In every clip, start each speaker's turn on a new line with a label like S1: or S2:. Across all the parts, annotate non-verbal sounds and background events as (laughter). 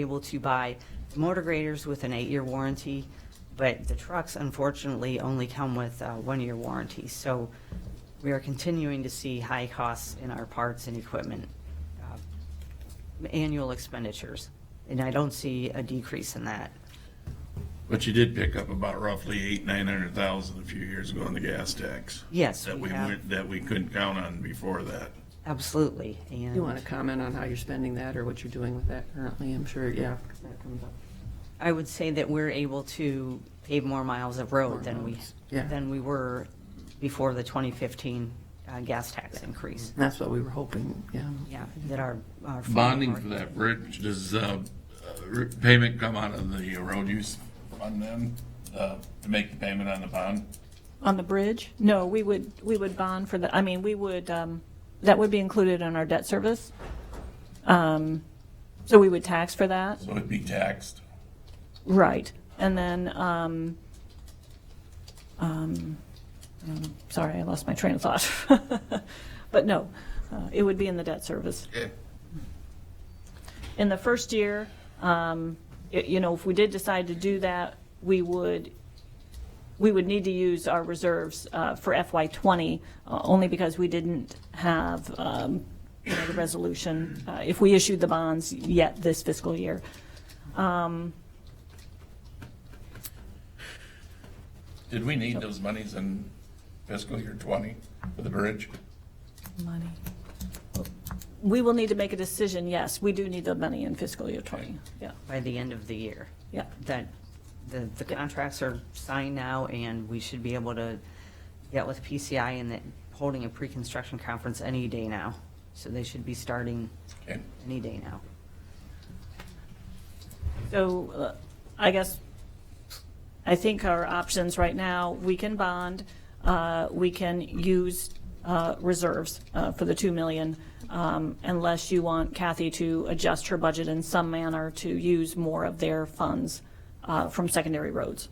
S1: able to buy motor graders with an eight-year warranty, but the trucks unfortunately only come with uh one-year warranty. So we are continuing to see high costs in our parts and equipment, uh, annual expenditures. And I don't see a decrease in that.
S2: But you did pick up about roughly eight, nine hundred thousand a few years ago on the gas tax.
S1: Yes,
S2: That
S1: we
S2: we
S1: have,
S2: went, that we couldn't count on before that.
S1: absolutely.
S3: You want
S1: And
S3: to comment on how you're spending that or what you're doing with that currently? I'm sure, yeah. that comes up.
S1: I would say that we're able to pave more miles of road than we,
S3: Yeah.
S1: than we were before the 2015 uh, gas tax increase.
S3: That's what we were hoping, yeah.
S1: Yeah, that our. our farm
S2: Bonding
S1: work-
S2: for that bridge, does, uh, uh, re- payment come out of the road use fund then, uh, to make the payment on the bond?
S4: On the bridge? No, we would, we would bond for the, I mean, we would, um, that would be included in our debt service. Um, So we would tax for that,
S2: So it'd be taxed.
S4: right. And then, um, um, um, sorry, I lost my train of thought. (laughs) But no, uh, it would be in the debt service.
S2: Okay.
S4: in the first year, um, y- you know, if we did decide to do that, we would, we would need to use our reserves uh, for FY '20, uh, only because we didn't have, um, you know, the resolution, uh, if we issued the bonds yet this fiscal year.
S2: Did we need those monies in fiscal year twenty for the bridge?
S4: Money. We will need to make a decision, yes, we do need the money in fiscal year '20, yeah,
S1: By the end of the year.
S4: yeah.
S1: That, the, the contracts are signed now and we should be able to get with PCI and that, holding a pre-construction conference any day now. So they should be starting
S2: Okay.
S1: any day now.
S4: So uh, I guess, I think our options right now, we can bond, uh, we can use uh, reserves uh, for the 2 million, um, unless you want Kathy to adjust her budget in some manner to use more of their funds uh, from secondary roads.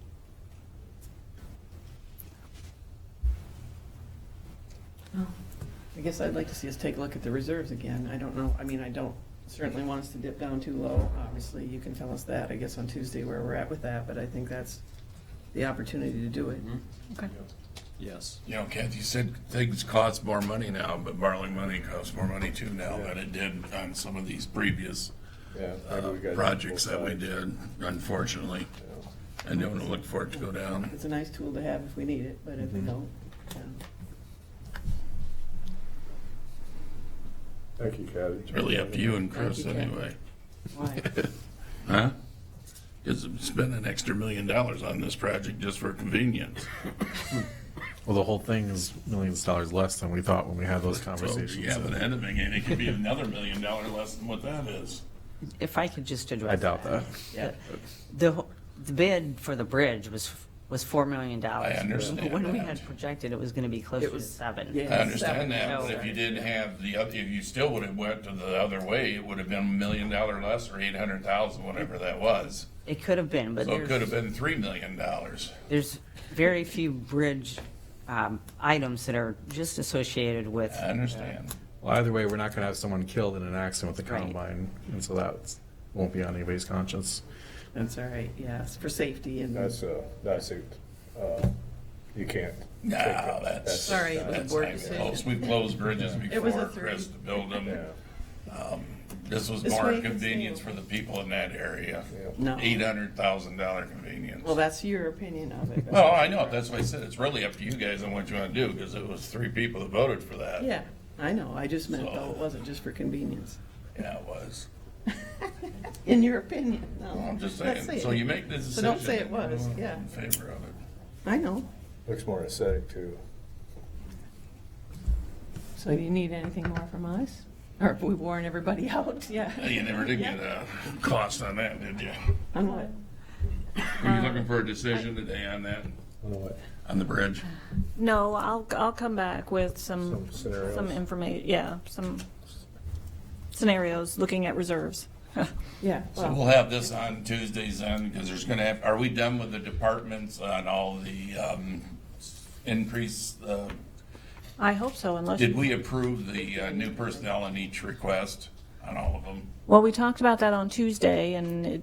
S3: I guess I'd like to see us take a look at the reserves again. I don't know, I mean, I don't certainly want us to dip down too low. Obviously, you can tell us that, I guess, on Tuesday where we're at with that, but I think that's the opportunity to do it.
S2: Mm-hmm.
S4: Okay.
S5: Yes.
S2: You know, Kathy said things cost more money now, but borrowing money costs more money too now than it did on some of these previous
S5: Yeah.
S2: uh, projects that we did, unfortunately. I don't look for it to go down.
S3: It's a nice tool to have if we need it, but if we
S2: Mm-hmm.
S3: don't, then
S5: Thank you, Kathy.
S2: It's really up to you and Chris
S3: Thank you, Kathy.
S2: anyway.
S3: why?
S2: (laughs) Huh? Because spend an extra million dollars on this project just for convenience.
S6: Well, the whole thing is millions of dollars less than we thought when we had those
S2: So
S6: conversations.
S2: you have an ending and it could be another million dollar less than what that is.
S1: If I could just address.
S6: I doubt that.
S3: Yeah.
S1: The, wh- the bid for the bridge was, was four million dollars.
S2: I understand
S1: When we
S2: that.
S1: had projected, it was gonna be closer
S3: It
S1: to
S3: was-
S1: seven.
S3: yeah.
S2: I understand that,
S1: No.
S2: but if you didn't have the, other, if you still would have went to the other way, it would have been a million dollar less or eight hundred thousand, whatever that was.
S1: It could have been, but
S2: So it could have
S1: there's,
S2: been three million dollars.
S1: there's very few bridge, um, items that are just associated with
S2: I understand.
S6: Well, either way, we're not going to have someone killed in an accident with the
S1: Right.
S6: combine, and so that won't be on anybody's conscience.
S3: That's all right, yes, for safety and.
S5: That's a, that's a, uh, you can't.
S2: No,
S5: take that.
S2: that's.
S3: Sorry, it was a
S2: that's
S3: board
S2: not even
S3: decision.
S2: close. We've closed bridges
S3: It was a
S2: before,
S3: three.
S2: Chris, to build them.
S5: Yeah,
S2: This was
S3: This
S2: more
S3: way you can
S2: convenience
S3: see.
S2: for the people in that area.
S3: No.
S2: Eight hundred thousand dollar convenience.
S3: Well, that's your opinion of it.
S2: (laughs) Oh, I know, that's why I said it's really up to you guys on what you wanna do, because it was three people that voted for that.
S3: Yeah, I know, I just meant though, it
S2: So-
S3: wasn't just for convenience.
S2: Yeah, it was.
S3: In your opinion,
S2: Well,
S3: no.
S2: I'm just
S3: Let's
S2: saying,
S3: see.
S2: so you make the decision.
S3: So don't say it was,
S2: I'm
S3: yeah.
S2: In favor of it.
S3: I know.
S5: looks more aesthetic too.
S3: So do you need anything more from us? Or if we warn everybody (laughs) out, yeah.
S2: Uh, You never did get a cost on that, did you?
S3: On what? Uh,
S2: Are you looking for a decision today on that,
S5: I know what,
S2: on the bridge?
S4: No, I'll, I'll come back with some,
S5: Some scenarios.
S4: some information, yeah, some scenarios, looking at reserves.
S3: Yeah,
S2: So
S3: well,
S2: we'll have this on Tuesdays then, because there's gonna have, are we done with the departments on all the, um, increase, uh,
S4: I hope so, unless.
S2: did we approve the, uh, new personnel in each request? on all of them.
S4: Well, we talked about that on Tuesday, and it